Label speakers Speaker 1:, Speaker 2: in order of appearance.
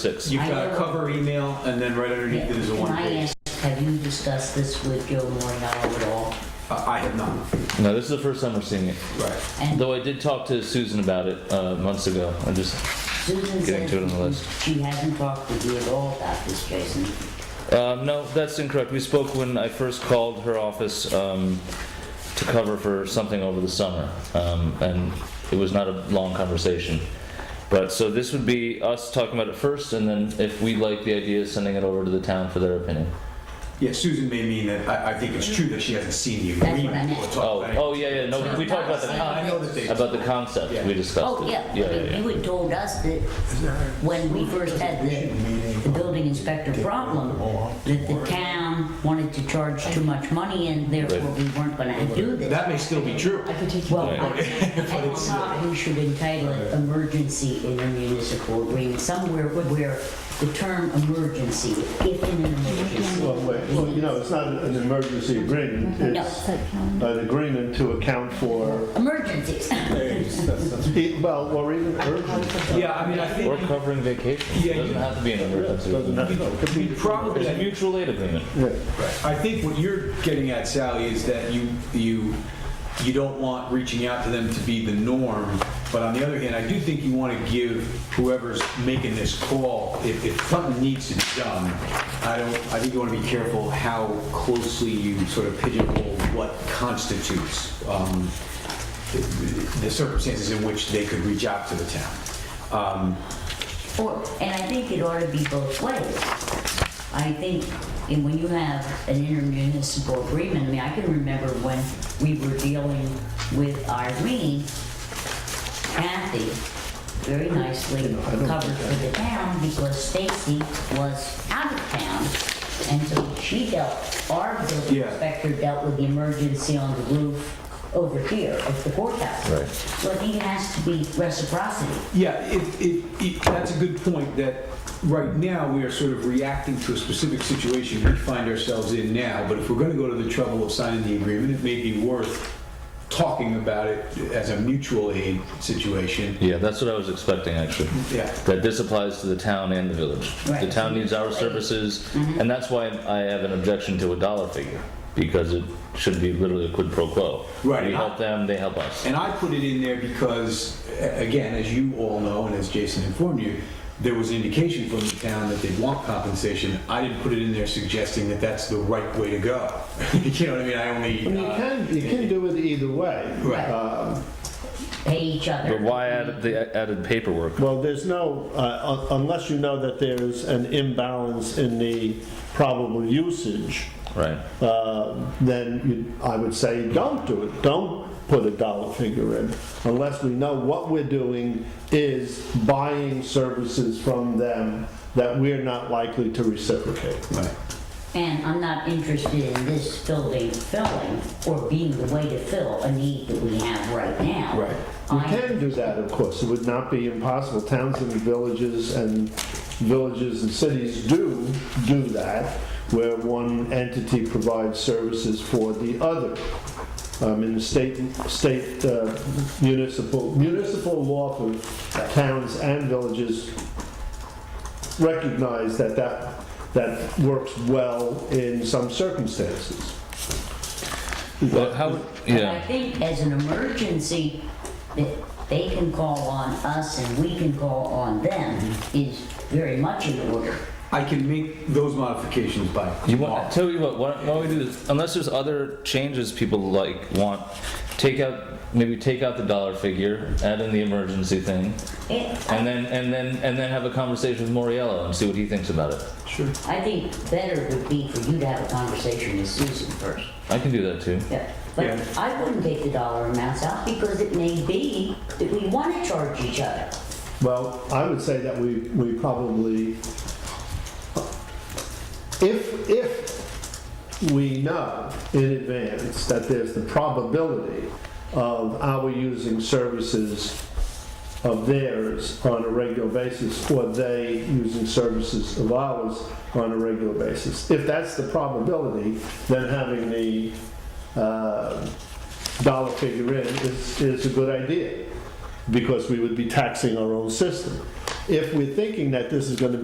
Speaker 1: six.
Speaker 2: You've got a cover email, and then right underneath it is a
Speaker 3: Can
Speaker 2: one
Speaker 3: I
Speaker 2: page.
Speaker 3: ask, have you discussed this with Joe Morello at all?
Speaker 2: Uh, I have not.
Speaker 1: No, this is the first time we're seeing it.
Speaker 2: Right.
Speaker 3: And
Speaker 1: Though I did talk to Susan about it uh, months ago. I just,
Speaker 3: Susan
Speaker 1: Getting to it on the
Speaker 3: says
Speaker 1: list.
Speaker 3: she hasn't talked with you at all about this, Jason.
Speaker 1: um, no, that's incorrect. We spoke when I first called her office um, to cover for something over the summer, um, and it was not a long conversation. But so this would be us talking about it first, and then if we like the idea, sending it over to the town for their opinion.
Speaker 2: Yeah, Susan may mean that, I, I think it's true that she hasn't seen the
Speaker 3: That's what I
Speaker 2: agreement.
Speaker 3: meant.
Speaker 2: or
Speaker 1: Oh,
Speaker 2: talked about it.
Speaker 1: oh yeah, yeah. No, we talked about the
Speaker 2: I
Speaker 1: con-
Speaker 2: know that they.
Speaker 1: about the concept. We discussed
Speaker 3: Oh,
Speaker 1: it.
Speaker 3: yeah,
Speaker 1: yeah, yeah.
Speaker 3: but you had told us that when we first had the, the building inspector problem, that the town wanted to charge too much money and therefore we weren't gonna do this.
Speaker 2: That may still be true.
Speaker 3: I could take you. Well, I- I don't know, we should entitle it emergency in a municipal agreement, somewhere where the term emergency, if in an emergency.
Speaker 4: Well, wait, well, you know, it's not an emergency agreement, it's an agreement to account for,
Speaker 3: Emergencies.
Speaker 4: e- well, or even urgent.
Speaker 2: Yeah, I mean, I
Speaker 1: We're
Speaker 2: think
Speaker 1: covering vacation.
Speaker 2: Yeah,
Speaker 1: it doesn't
Speaker 2: you-
Speaker 1: have to be an emergency.
Speaker 4: Doesn't have to- could
Speaker 2: we
Speaker 4: be-
Speaker 2: probably,
Speaker 1: It's a mutual aid agreement.
Speaker 4: yeah.
Speaker 2: I think what you're getting at, Sally, is that you, you, you don't want reaching out to them to be the norm. But on the other hand, I do think you want to give whoever's making this call, if, if something needs to be done, I don't, I think you want to be careful how closely you sort of pigeonhole what constitutes um, the the circumstances in which they could reach out to the town. Um,
Speaker 3: Or, and I think it ought to be both ways. I think, and when you have an intermunicipal agreement, I mean, I can remember when we were dealing with Irene, Kathy very nicely covered for the town because Stacy was out of town. And so she dealt, our building
Speaker 2: Yeah.
Speaker 3: inspector dealt with the emergency on the roof over here at the courthouse.
Speaker 1: Right.
Speaker 3: So I think it has to be reciprocity.
Speaker 2: Yeah, it, it, it, that's a good point, that right now, we are sort of reacting to a specific situation we find ourselves in now, but if we're gonna go to the trouble of signing the agreement, it may be worth talking about it as a mutual aid situation.
Speaker 1: Yeah, that's what I was expecting actually.
Speaker 2: Yeah.
Speaker 1: That this applies to the town and the village. The
Speaker 3: Right.
Speaker 1: town needs our services, and that's why I have an objection to a dollar figure because it should be literally a quid pro quo.
Speaker 2: Right.
Speaker 1: We help them, they help us.
Speaker 2: And I put it in there because, a- again, as you all know, and as Jason informed you, there was an indication from the town that they'd want compensation. I didn't put it in there suggesting that that's the right way to go. You know what I mean? I only.
Speaker 4: I mean, you
Speaker 2: uh,
Speaker 4: can, you can do it either way.
Speaker 2: Right.
Speaker 4: Um,
Speaker 3: pay each other.
Speaker 1: But why add the added paperwork?
Speaker 4: Well, there's no, uh, un- unless you know that there's an imbalance in the probable usage,
Speaker 1: Right.
Speaker 4: uh, then you- I would say, don't do it. Don't put a dollar figure in unless we know what we're doing is buying services from them that we're not likely to reciprocate.
Speaker 2: Right.
Speaker 3: And I'm not interested in this building filling or being the way to fill a need that we have right now.
Speaker 2: Right.
Speaker 4: We
Speaker 3: I-
Speaker 4: can do that, of course. It would not be impossible. Towns and villages and villages and cities do do that, where one entity provides services for the other. Um, in the state, state uh, municipal, municipal law for towns and villages recognize that that, that works well in some circumstances.
Speaker 1: Well, how? would-
Speaker 3: And I
Speaker 1: Yeah.
Speaker 3: think as an emergency, that they can call on us and we can call on them
Speaker 1: Mm-hmm.
Speaker 3: is very much in order.
Speaker 2: I can make those modifications by
Speaker 1: You
Speaker 2: tomorrow.
Speaker 1: want? Tell you what. Why don't, why don't we do this? Unless there's other changes people like want, take out maybe take out the dollar figure, add in the emergency thing,
Speaker 3: It,
Speaker 1: and then and then and then have a conversation with Moriello and see what he thinks about it.
Speaker 3: I think better would be for you to have a conversation with Susan first.
Speaker 1: I can do that too.
Speaker 3: Yeah, but
Speaker 2: Yeah.
Speaker 3: I wouldn't take the dollar amounts out because it may be that we want to charge each other.
Speaker 4: Well, I would say that we, we probably, if, if we know in advance that there's the probability of our using services of theirs on a regular basis, or they using services of ours on a regular basis, if that's the probability, then having the uh, dollar figure in is, is a good idea because we would be taxing our own system. If we're thinking that this is going to